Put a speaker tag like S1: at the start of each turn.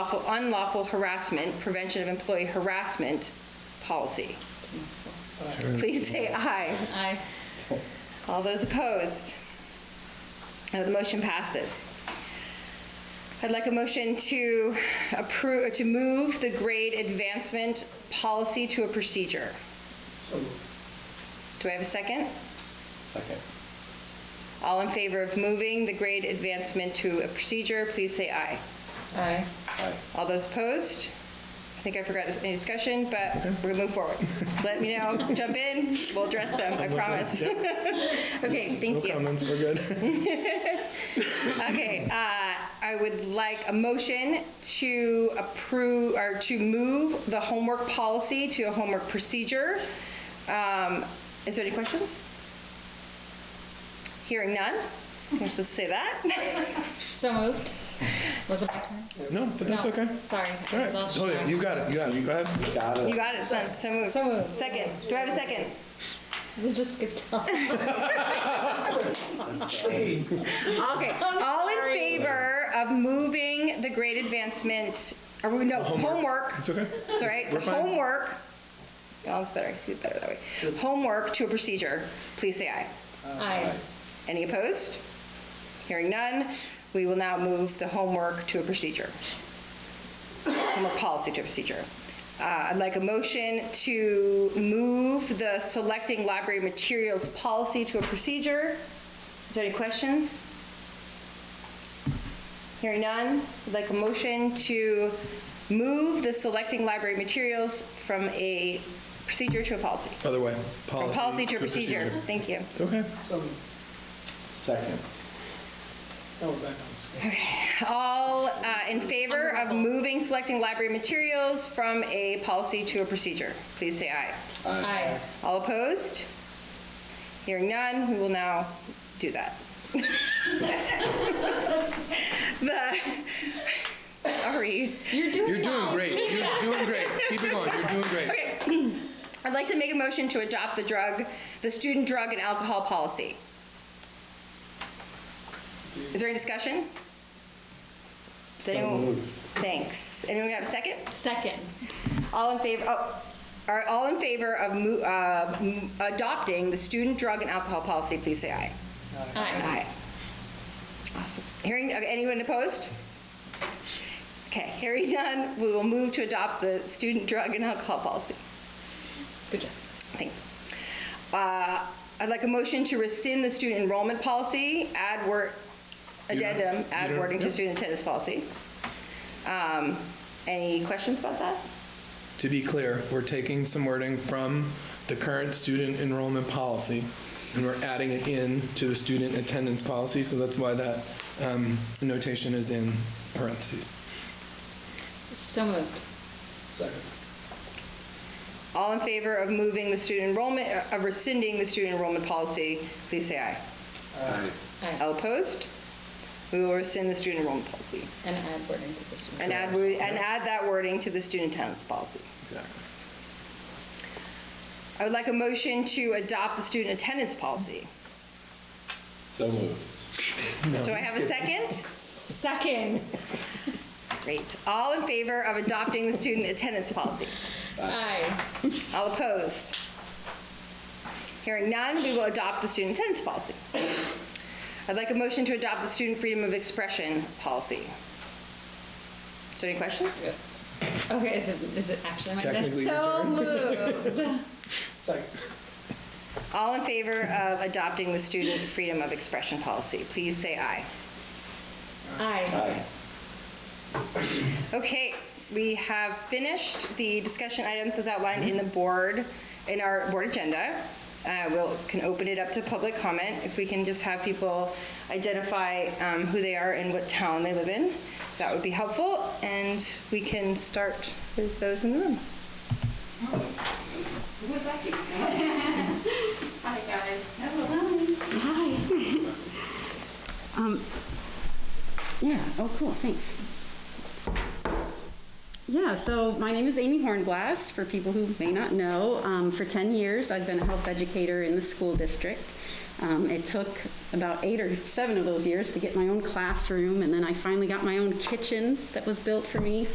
S1: lawful, unlawful harassment, prevention of employee harassment policy. Please say aye.
S2: Aye.
S1: All those opposed? Uh, The motion passes. I'd like a motion to approve, to move the grade advancement policy to a procedure. Do I have a second?
S3: Second.
S1: All in favor of moving the grade advancement to a procedure, please say aye.
S2: Aye.
S3: Aye.
S1: All those opposed? I think I forgot any discussion, but we're gonna move forward. Let me know, jump in, we'll address them, I promise. Okay,
S4: No
S1: thank you.
S4: comments, we're good.
S1: Okay, uh, I would like a motion to approve, or to move the homework policy to a homework procedure. Um, Is there any questions? Hearing none? I'm supposed to say that?
S2: So moved. Was it my turn?
S4: No, but that's
S2: No,
S4: okay.
S2: Sorry.
S4: All right.
S2: Lost
S4: Oh, yeah,
S2: track.
S4: you got it, you got it, you go ahead.
S3: Got
S1: You
S3: it.
S1: got it, son, so moved.
S2: So moved.
S1: Second, do I have a second?
S2: We just skipped down.
S1: Okay, all in
S2: sorry.
S1: favor of moving the grade advancement, or we- no, homework,
S4: It's okay.
S1: sorry,
S4: We're fine.
S1: homework. Oh, it's better, I see it better that way. Homework to a procedure, please say aye.
S2: Aye.
S1: Any opposed? Hearing none, we will now move the homework to a procedure. Homework policy to a procedure. Uh, I'd like a motion to move the selecting library materials policy to a procedure. Is there any questions? Hearing none, I'd like a motion to move the selecting library materials from a procedure to a policy.
S4: Other way.
S1: From policy to a procedure, thank you.
S4: It's okay.
S5: So,
S3: Second.
S5: oh, back on screen.
S1: All uh, in favor of moving selecting library materials from a policy to a procedure? Please say aye.
S2: Aye.
S1: All opposed? Hearing none, we will now do that. The, sorry.
S2: You're doing
S4: You're doing
S2: well.
S4: great, you're doing great. Keep it going, you're doing great.
S1: Okay. I'd like to make a motion to adopt the drug, the student drug and alcohol policy. Is there any discussion? Does anyone- Thanks. Anyone have a second?
S2: Second.
S1: All in favor, oh, are all in favor of mo- uh, m- adopting the student drug and alcohol policy, please say aye.
S2: Aye.
S1: Awesome. Hearing, okay, anyone opposed? Okay, hearing none, we will move to adopt the student drug and alcohol policy.
S2: Good job.
S1: Thanks. Uh, I'd like a motion to rescind the student enrollment policy, add word,
S4: You don't-
S1: addendum,
S4: you
S1: add
S4: don't-
S1: wording to
S4: yeah.
S1: student attendance policy. Um, Any questions about that?
S4: To be clear, we're taking some wording from the current student enrollment policy, and we're adding it in to the student attendance policy, so that's why that um, notation is in parentheses.
S2: So moved.
S5: Second.
S1: All in favor of moving the student enrollment, uh, of rescinding the student enrollment policy, please say aye.
S3: Aye.
S2: Aye.
S1: All opposed? We will rescind the student enrollment policy
S2: And add word into this one.
S1: and add, wo- and add that wording to the student attendance policy.
S4: Exactly.
S1: I would like a motion to adopt the student attendance policy.
S3: So moved.
S1: Do I have a second? Second. Great. All in favor of adopting the student attendance policy?
S2: Aye.
S1: All opposed? Hearing none, we will adopt the student attendance policy. I'd like a motion to adopt the student freedom of expression policy. So any questions?
S2: Okay, is it, is it actually my turn?
S4: Technically your
S2: So
S4: turn.
S2: moved.
S5: Second.
S1: All in favor of adopting the student freedom of expression policy, please say aye.
S2: Aye.
S3: Aye.
S1: Okay, we have finished the discussion items as outlined in the board, in our board agenda. Uh, We'll, can open it up to public comment, if we can just have people identify um, who they are and what town they live in. That would be helpful, and we can start with those in the room.
S6: Hi, guys. Hello. Hi. Um, yeah, oh, cool, thanks. Yeah, so my name is Amy Hornblast, for people who may not know. Um, for 10 years, I've been a health educator in the school district. Um, it took about eight or seven of those years to get my own classroom, and then I finally got my own kitchen that was built for me